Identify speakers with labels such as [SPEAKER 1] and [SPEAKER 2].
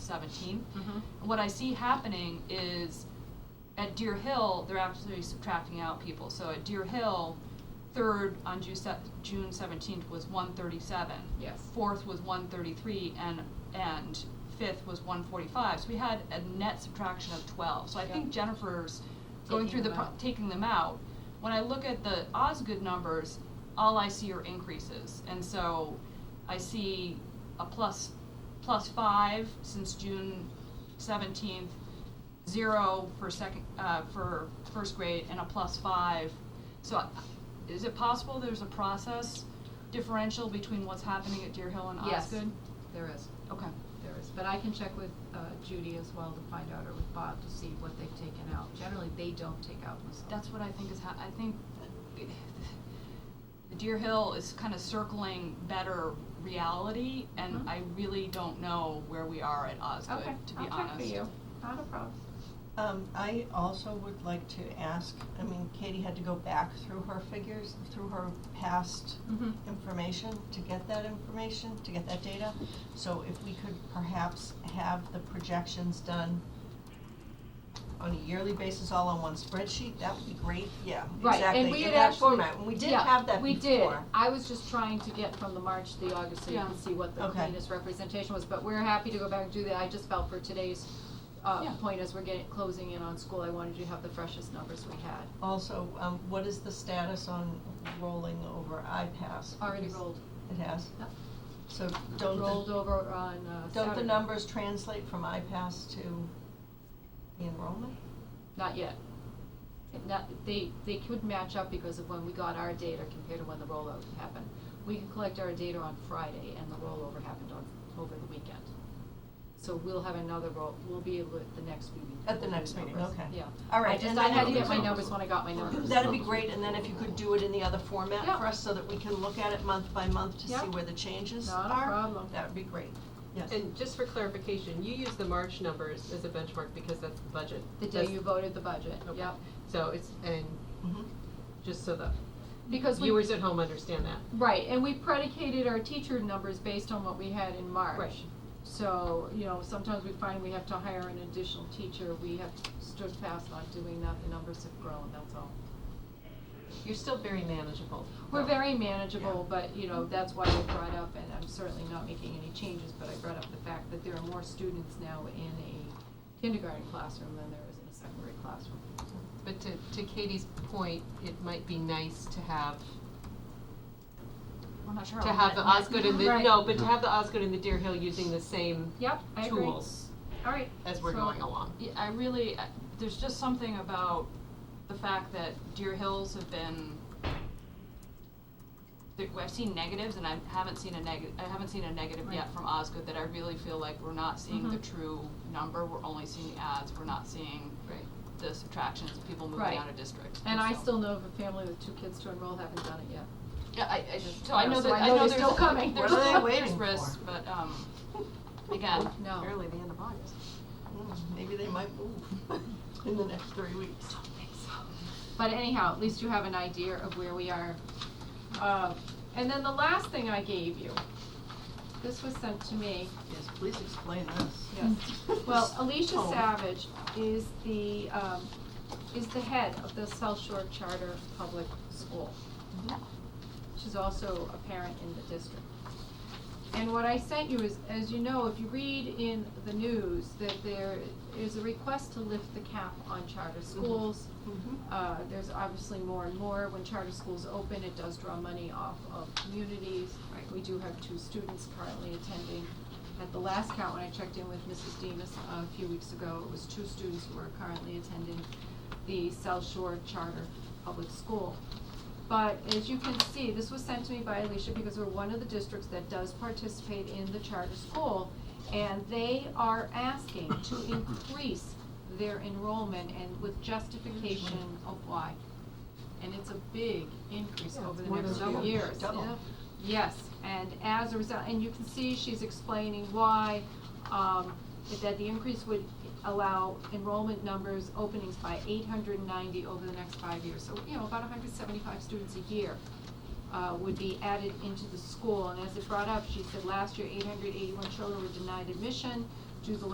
[SPEAKER 1] 17.
[SPEAKER 2] Mm-hmm.
[SPEAKER 1] What I see happening is at Deer Hill, they're actually subtracting out people. So at Deer Hill, third on Ju- se- June 17th was 137.
[SPEAKER 3] Yes.
[SPEAKER 1] Fourth was 133, and and fifth was 145. So we had a net subtraction of 12. So I
[SPEAKER 3] Yeah.
[SPEAKER 1] think Jennifer's going
[SPEAKER 3] Taking
[SPEAKER 1] through the
[SPEAKER 3] them
[SPEAKER 1] pro-
[SPEAKER 3] out.
[SPEAKER 1] taking them out. When I look at the Osgood numbers, all I see are increases, and so I see a plus plus five since June seventeenth, zero for second uh, for first grade, and a plus five. So, I- is it possible there's a process differential between what's happening at Deer Hill and
[SPEAKER 3] Yes,
[SPEAKER 1] Osgood?
[SPEAKER 3] there is,
[SPEAKER 1] Okay.
[SPEAKER 3] there is, but I can check with uh, Judy as well to find out, or with Bob to see what they've taken out. Generally, they don't take out Miss
[SPEAKER 1] That's what I think is ha- I think the Deer Hill is kind of circling better reality, and
[SPEAKER 3] Mhm.
[SPEAKER 1] I really don't know where we are at Osgood,
[SPEAKER 3] Okay,
[SPEAKER 1] to be
[SPEAKER 3] I'll
[SPEAKER 1] honest.
[SPEAKER 3] check for you, not a problem.
[SPEAKER 4] Um, I also would like to ask, I mean, Katie had to go back through her figures, through her past
[SPEAKER 2] Mm-hmm.
[SPEAKER 3] Mhm.
[SPEAKER 4] information to get that information, to get that data. So if we could perhaps have the projections done on a yearly basis, all on one spreadsheet, that would be great, yeah,
[SPEAKER 2] Right, and
[SPEAKER 4] exactly,
[SPEAKER 2] we
[SPEAKER 4] in
[SPEAKER 2] had
[SPEAKER 4] that
[SPEAKER 2] actually,
[SPEAKER 4] format, and we did
[SPEAKER 2] yeah,
[SPEAKER 4] have that before.
[SPEAKER 2] we did. I was just trying to get from the March to the August so you
[SPEAKER 1] Yeah.
[SPEAKER 2] can see what the
[SPEAKER 4] Okay.
[SPEAKER 2] cleanest representation was, but we're happy to go back and do that. I just felt for today's
[SPEAKER 1] Yeah.
[SPEAKER 2] uh point as we're getting, closing in on school, I wanted to have the freshest numbers we had.
[SPEAKER 4] Also, um, what is the status on rolling over iPass?
[SPEAKER 2] Already
[SPEAKER 4] Because
[SPEAKER 2] rolled,
[SPEAKER 4] It has?
[SPEAKER 2] Yep.
[SPEAKER 4] So don't the
[SPEAKER 2] rolled over on uh Saturday.
[SPEAKER 4] Don't the numbers translate from IPAS to the enrollment?
[SPEAKER 2] Not yet. It Not, they, they could match up because of when we got our data compared to when the rollout happened. We can collect our data on Friday and the rollover happened on, over the weekend. So we'll have another roll, we'll be able at the next meeting.
[SPEAKER 4] At the next meeting,
[SPEAKER 2] numbers.
[SPEAKER 4] okay.
[SPEAKER 2] Yeah.
[SPEAKER 4] All right,
[SPEAKER 2] I just,
[SPEAKER 4] and
[SPEAKER 2] I
[SPEAKER 4] then
[SPEAKER 2] had to
[SPEAKER 4] you
[SPEAKER 2] get my
[SPEAKER 4] can-
[SPEAKER 2] numbers when I got my numbers.
[SPEAKER 4] That'd be great, and then if you could do it in the other format
[SPEAKER 2] Yeah.
[SPEAKER 4] for us, so that we can look at it month by month to see
[SPEAKER 2] Yeah.
[SPEAKER 4] where the changes are.
[SPEAKER 2] Not a problem.
[SPEAKER 4] That would be great, yes.
[SPEAKER 5] And just for clarification, you use the March numbers as a benchmark because that's the budget.
[SPEAKER 2] The day
[SPEAKER 5] That's-
[SPEAKER 2] you voted the budget,
[SPEAKER 5] Okay.
[SPEAKER 2] yep.
[SPEAKER 5] So it's, and
[SPEAKER 4] Mhm.
[SPEAKER 5] just so the
[SPEAKER 2] Because we.
[SPEAKER 5] viewers at home understand that.
[SPEAKER 2] Right, and we predicated our teacher numbers based on what we had in March.
[SPEAKER 5] Right.
[SPEAKER 2] So, you know, sometimes we find we have to hire an additional teacher, we have stood fast on doing that, the numbers have grown, that's all.
[SPEAKER 5] You're still very manageable.
[SPEAKER 2] We're
[SPEAKER 5] though.
[SPEAKER 2] very manageable, but, you know, that's why we brought up, and I'm certainly not making any changes, but I brought up the fact that there are more students now in a kindergarten classroom than there is in a secondary classroom.
[SPEAKER 3] But to, to Katie's point, it might be nice to have,
[SPEAKER 1] We're not sure.
[SPEAKER 3] to
[SPEAKER 1] on
[SPEAKER 3] have the
[SPEAKER 1] that.
[SPEAKER 3] Osgood and the,
[SPEAKER 2] Right.
[SPEAKER 3] no, but to have the Osgood and the Deer Hill using the same
[SPEAKER 2] Yep, I agree.
[SPEAKER 3] tools
[SPEAKER 2] All right.
[SPEAKER 3] as we're
[SPEAKER 1] So-
[SPEAKER 3] going along.
[SPEAKER 1] Yeah, I really, I- there's just something about the fact that Deer Hills have been, there- I've seen negatives and I haven't seen a negative, I haven't seen a negative yet
[SPEAKER 2] Right.
[SPEAKER 1] from Osgood that I really feel like we're not seeing the
[SPEAKER 2] Mhm.
[SPEAKER 1] true number, we're only seeing the adds, we're not seeing
[SPEAKER 3] Right.
[SPEAKER 1] the subtractions, people moving
[SPEAKER 2] Right.
[SPEAKER 1] out of district.
[SPEAKER 2] And I
[SPEAKER 1] so-
[SPEAKER 2] still know of a family with two kids to enroll, haven't done it yet.
[SPEAKER 1] Yeah, I, I just, so I know
[SPEAKER 2] So
[SPEAKER 1] that,
[SPEAKER 2] I
[SPEAKER 1] I
[SPEAKER 2] know
[SPEAKER 1] know
[SPEAKER 2] they're
[SPEAKER 1] there's,
[SPEAKER 2] still coming.
[SPEAKER 1] there's,
[SPEAKER 4] What are they
[SPEAKER 1] there's
[SPEAKER 4] waiting
[SPEAKER 1] risks,
[SPEAKER 4] for?
[SPEAKER 1] but, um, again,
[SPEAKER 2] No.
[SPEAKER 3] Early, the end of August.
[SPEAKER 4] Mm, Maybe they might move in the next three weeks.
[SPEAKER 2] But anyhow, at least you have an idea of where we are. Uh, and then the last thing I gave you, this was sent to me.
[SPEAKER 4] Yes, please explain this.
[SPEAKER 2] Yes. Well, Alicia
[SPEAKER 4] Oh.
[SPEAKER 2] Savage is the, um, is the head of the South Shore Charter Public School. She's also a parent in the district. And what I sent you is, as you know, if you read in the news, that there is a request to lift the cap on charter schools.
[SPEAKER 4] Mhm.
[SPEAKER 2] Uh, there's obviously more and more, when charter schools open, it does draw money off of communities.
[SPEAKER 3] Right.
[SPEAKER 2] We do have two students currently attending. At the last count, when I checked in with Mrs. Demus uh, a few weeks ago, it was two students who are currently attending the South Shore Charter Public School. But as you can see, this was sent to me by Alicia because we're one of the districts that does participate in the charter school. And they are asking to increase their enrollment and with justification of why. And it's a big increase
[SPEAKER 3] Yeah,
[SPEAKER 2] over
[SPEAKER 3] it's
[SPEAKER 2] the
[SPEAKER 3] more than
[SPEAKER 2] next few
[SPEAKER 3] double.
[SPEAKER 2] years.
[SPEAKER 4] Double.
[SPEAKER 2] Yes, and as a result, and you can see she's explaining why, um, that the increase would allow enrollment numbers, openings by eight hundred and ninety over the next five years. So, you know, about hundred and seventy-five students a year, uh, would be added into the school. And as it brought up, she said last year, eight hundred eighty-one children were denied admission due to